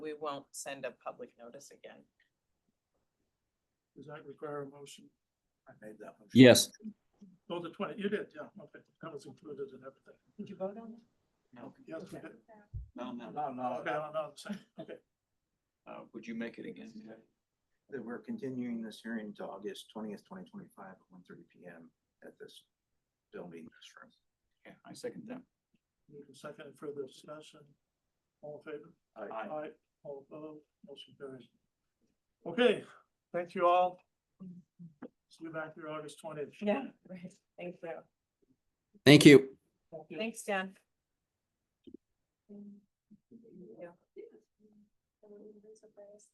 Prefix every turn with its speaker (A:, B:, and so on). A: won't send a public notice again.
B: Does that require a motion? I made that motion.
C: Yes,
B: Oh, the twenty, you did, yeah, okay, that was included in everything.
A: Did you vote on it?
D: No,
B: Yes, we did.
D: no, no, no,
B: Okay,
D: no.
B: no, no, I'm saying, okay,
D: Uh, would you make it again?
E: that we're continuing this hearing to August twentieth, twenty twenty-five, at one thirty P M at this building, this room.
D: Yeah, I second that.
B: you can second and further discussion. All in favor?
D: Aye.
B: Aye, all opposed, motion carries. Okay, thank you all. See you back here August twentieth.
A: Yeah, right. Thank you.
C: thank you.
A: Thanks, Dan.